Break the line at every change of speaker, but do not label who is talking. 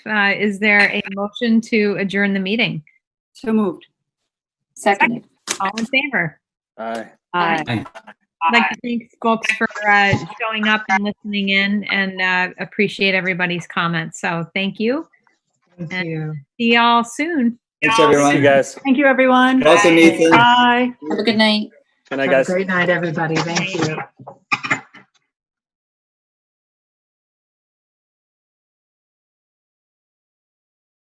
uh, is there a motion to adjourn the meeting?
So moved.
Seconded.
All in favor?
Aye.
Aye.
I'd like to thank folks for uh, showing up and listening in and uh, appreciate everybody's comments. So thank you.
Thank you.
See y'all soon.
Thanks, everyone. You guys.
Thank you, everyone.
Nelson, Nathan.
Bye.
Have a good night.
Good night,
Have a
guys.
great night, everybody. Thank you.